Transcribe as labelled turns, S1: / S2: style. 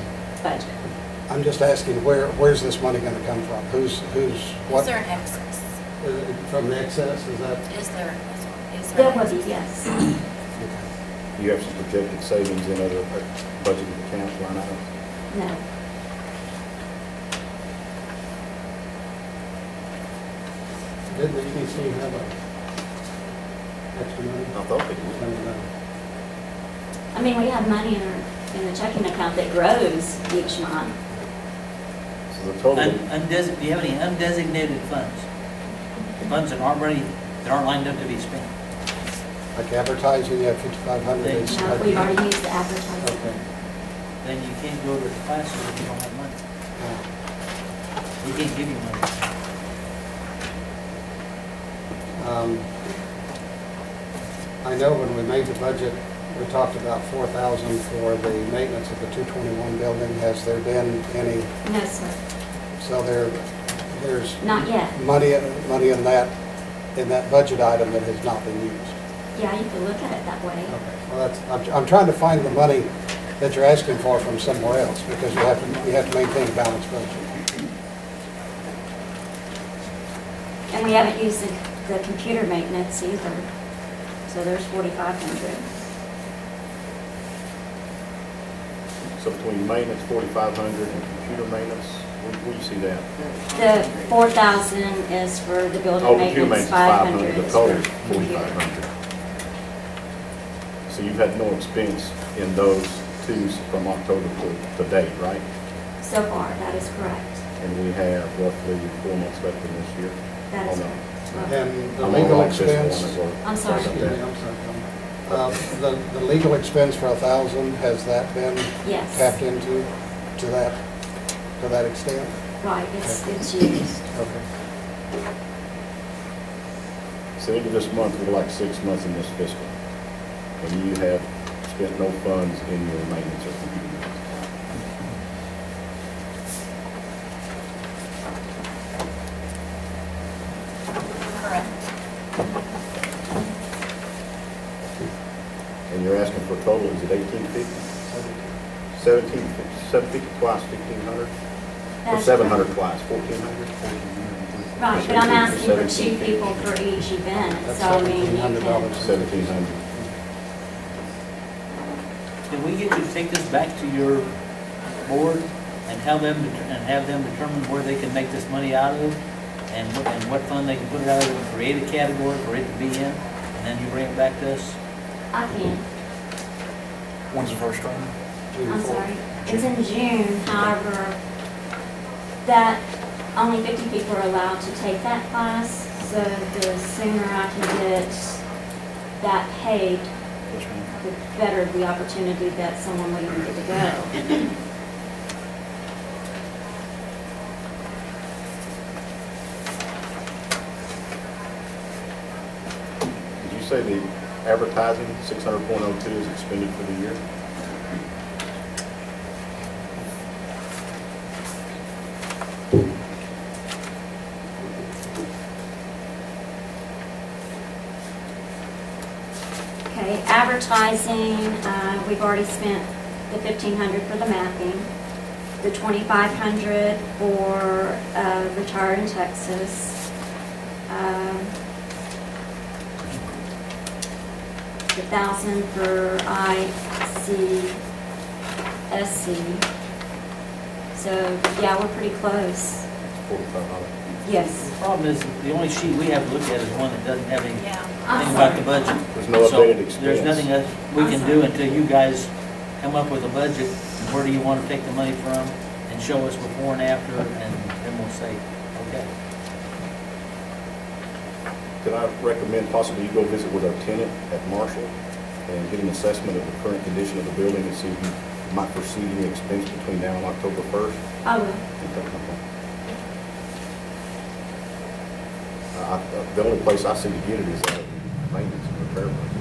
S1: next budget?
S2: I'm just asking, where, where's this money going to come from? Who's, who's,
S3: Is
S2: what,
S3: there an excess?
S2: uh, from the excess, is that?
S3: Is there, is there- is there?
S1: There would be, yes.
S2: okay.
S4: You have some projected savings in other budgeted accounts line items.
S1: No.
S2: Didn't the EDC have a extra money?
S4: I thought
S2: I
S4: they did.
S2: don't know.
S1: I mean, we have money in our, in the checking account that grows each month. Uh,
S4: So the total,
S5: Un- undesi- do you have any undesignated funds? Funds that aren't ready, that aren't lined up to be spent?
S2: Like advertising, you have 5,500. it's-
S1: Now, we've already used the advertising.
S2: Okay.
S5: Then you can't go to the classes if you don't have money.
S2: Uh,
S5: We can't give you money.
S2: um, I know when we made the budget, we talked about 4,000 for the maintenance of the 221 building. Has there been any,
S1: No, sir,
S2: so there, there's
S1: not yet.
S2: money, in- money in that, in that budget item that has not been used?
S1: Yeah, you can look at it that way.
S2: Okay, well, that's, I'm, I'm trying to find the money that you're asking for from somewhere else, because you have to, you have to maintain a balanced budget.
S1: And we haven't used the, the computer maintenance either. So there's forty-five hundred.
S4: so between maintenance, forty-five hundred, and computer maintenance, where, where you see that?
S1: The four thousand is for the
S4: Oh,
S1: building
S4: computer maintenance,
S1: maintenance,
S4: five hundred, the
S1: is
S4: total,
S1: for computer.
S4: forty-five hundred. So you've had no expense in those twos from October to, to date, right?
S1: So far, that is correct.
S4: And we have roughly four months left in this year.
S1: That is
S4: Hold on.
S1: correct.
S2: And the
S4: I'm on
S2: legal
S4: like this one
S2: expense,
S4: as well.
S1: I'm sorry.
S2: excuse me, I'm sorry, Tom. Uh, the, the legal expense for a thousand, has that been
S1: Yes.
S2: tapped into, to that, to that extent?
S1: Right, it's, it's used.
S2: Okay.
S4: So into this month, we're like six months in this fiscal. And you have spent no funds in your maintenance or computer maintenance.
S3: Correct.
S4: And you're asking for a total, is it eighteen fifty? Seventeen, seven fifty twice, fifteen hundred? Or
S1: That's
S4: seven
S1: correct.
S4: hundred twice, fourteen hundred?
S1: Right, but I'm asking for two people for each event,
S2: That's
S1: so I mean, you
S2: $1,700.
S1: can.
S4: Seventeen hundred.
S5: Can we get you to take this back to your board and have them, det- and have them determine where they can make this money out of? And what, and what fund they can put it out of, and create a category for it to be in, and then you bring it back to us?
S1: I can,
S6: When's the first training?
S2: June
S1: I'm
S2: fourth.
S1: sorry. It's in June, however, that, only fifty people are allowed to take that class, so the sooner I can get that paid,
S6: Yes, ma'am.
S1: the better the opportunity that someone will even get to go.
S4: Did you say the advertising, six hundred point oh two is expended for the year?
S1: Okay, advertising, uh, we've already spent the fifteen hundred for the mapping, the twenty-five hundred for, uh, retire in Texas. um, The thousand for ICSC. So, yeah, we're pretty close.
S4: Forty-five hundred.
S1: Yes.
S5: The problem is, the only sheet we have to look at is one that doesn't have any, anything
S3: Yeah.
S1: I'm
S5: about the
S1: sorry.
S5: budget.
S4: There's no
S5: So
S4: updated expense.
S5: There's nothing that we can do until you guys come up with a budget, and where do you want to take the money from, and show us before and after, and then we'll say, okay.
S4: Could I recommend possibly you go visit with our tenant at Marshall and get an assessment of the current condition of the building and see if you might foresee any expense between now and October first?
S1: I will.
S4: I, I- the only place I see to get it is out of maintenance and repair budget.